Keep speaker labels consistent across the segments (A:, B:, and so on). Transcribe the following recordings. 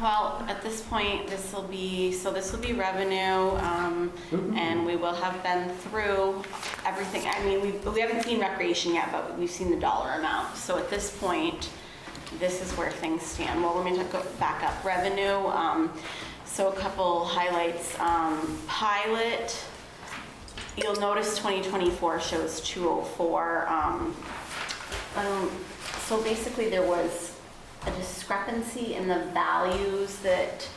A: Well, at this point, this will be, so this will be revenue, um, and we will have been through everything. I mean, we, we haven't seen recreation yet, but we've seen the dollar amount. So at this point, this is where things stand. Well, let me go back up. Revenue, um, so a couple highlights. Um, Pilot, you'll notice 2024 shows 204. Um, um, So basically, there was a discrepancy in the values that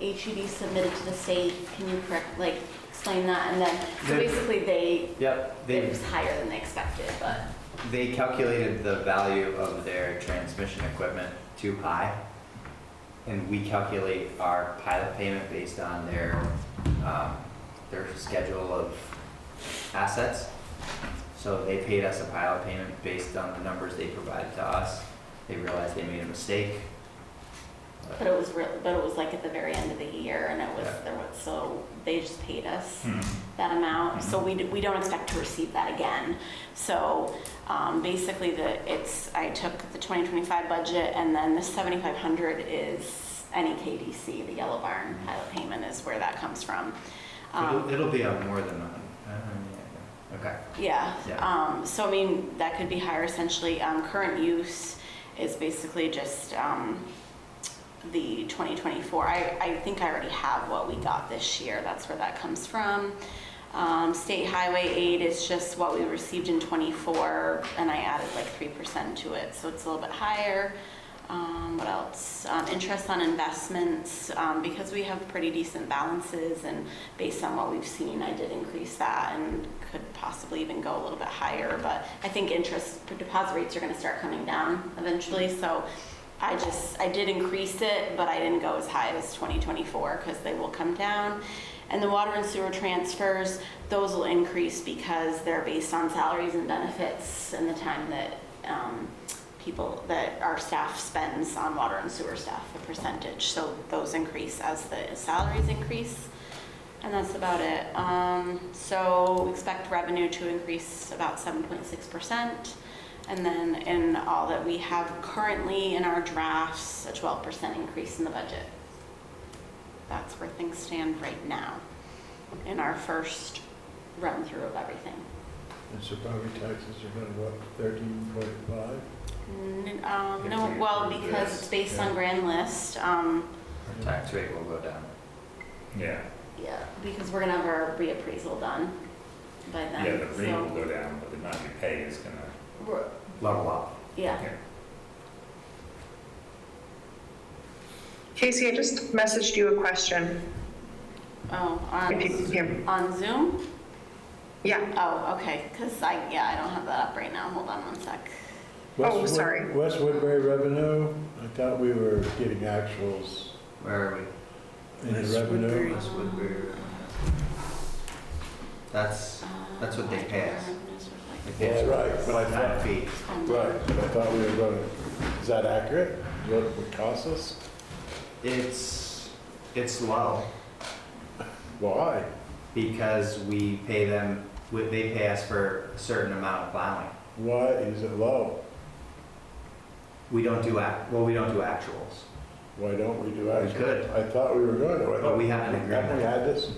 A: HUD submitted to the state. Can you correct, like, explain that? And then, so
B: The-
A: basically, they,
B: Yep,
A: it
B: they,
A: was higher than they expected, but,
B: they calculated the value of their transmission equipment too high. And we calculate our pilot payment based on their, um, their schedule of assets. So they paid us a pilot payment based on the numbers they provided to us. They realized they made a mistake.
A: but it was real, but it was like at the very end of the year, and it was,
B: Yeah.
A: there was, so they just paid us.
B: Hmm.
A: that amount, so we, d- we don't expect to receive that again. So um, basically, the, it's, I took the 2025 budget, and then the 7,500 is any KDC, the Yellow Barn pilot payment is where that comes from.
B: It'll,
A: Um,
B: it'll be up more than a hundred. Uh, Okay.
A: Yeah,
B: Yeah.
A: um, so I mean, that could be higher essentially. Um, Current use is basically just um, the 2024. I, I think I already have what we got this year, that's where that comes from. Um, State highway aid is just what we received in '24, and I added like 3% to it, so it's a little bit higher. Um, What else? Um, Interest on investments, um, because we have pretty decent balances, and based on what we've seen, I did increase that and could possibly even go a little bit higher, but I think interest, deposit rates are gonna start coming down eventually, so I just, I did increase it, but I didn't go as high as 2024, because they will come down. And the water and sewer transfers, those will increase because they're based on salaries and benefits and the time that um, people, that our staff spends on water and sewer staff, the percentage. So those increase as the salaries increase. And that's about it. Um, So expect revenue to increase about 7.6%. And then in all that we have currently in our drafts, a 12% increase in the budget. That's where things stand right now in our first run-through of everything.
C: And so property taxes are gonna go up thirteen point five?
A: N- um, No, well, because it's based on grand list. um,
B: Our tax rate will go down.
D: Yeah,
A: Yeah, because we're gonna have our reappraisal done by then.
D: yeah, the rate will
A: so-
D: go down, but the amount you pay is gonna,
A: We're-
B: Level up.
A: Yeah.
D: yeah.
E: Casey, I just messaged you a question,
A: Oh,
E: if you
A: on,
E: can hear me.
A: on Zoom?
E: Yeah,
A: Oh, okay, because I, yeah, I don't have that up right now. Hold on one sec.
E: Oh, sorry.
C: West Woodbury revenue, I thought we were getting actuals
B: Where are we?
C: in the
F: West
C: revenue.
F: Woodbury.
B: That's what we're- That's, That's
A: Oh,
B: what they pass. like
C: Yeah, right, but I
B: that's nine
C: thought-
B: feet.
A: Um,
C: Right, but I thought we were gonna, is that accurate? Is What it would cost us?
B: It's, it's low
C: Why?
B: because we pay them, we- they pay us for a certain amount of plowing.
C: Why is it low?
B: We don't do act, well, we don't do actuals.
C: Why don't we do actuals?
B: could.
C: I thought we were going to.
B: But we haven't agreed.
C: Haven't we had this?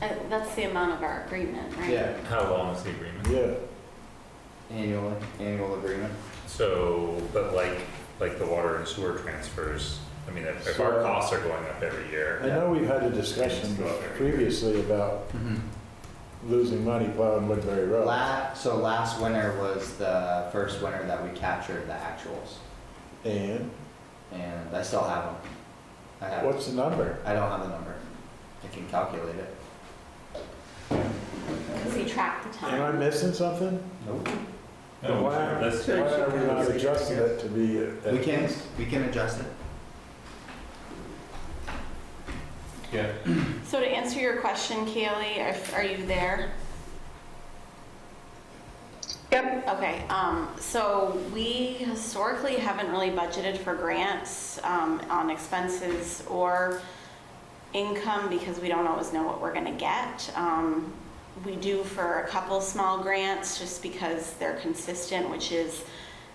A: And uh, That's the amount of our agreement, right?
D: How long is the agreement?
C: Yeah,
B: Annual, annual agreement.
D: So, but like, like the water and sewer transfers, I mean, if if our
C: So-
D: costs are going up every
C: I
D: year,
C: know we've had a discussion previously about losing money plowing Woodbury Road.
B: La, so last winter was the first winter that we captured the actuals
C: And
B: and I still have them. I have,
C: what's the number?
B: I don't have the number. I can calculate it.
A: Because he tracked the
C: Am I
A: time.
C: missing something?
B: Nope.
C: Then Why aren't
D: that's-
C: why are we not adjusting it to be? at-
B: We can, we can adjust it.
A: So to answer your question, Kaylee, if- are you there?
E: yep,
A: Okay, um, so we historically haven't really budgeted for grants, um, on expenses or income because we don't always know what we're gonna get. Um, we do for a couple small grants just because they're consistent, which is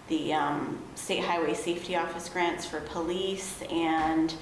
A: the, um, State Highway Safety Office grants for police and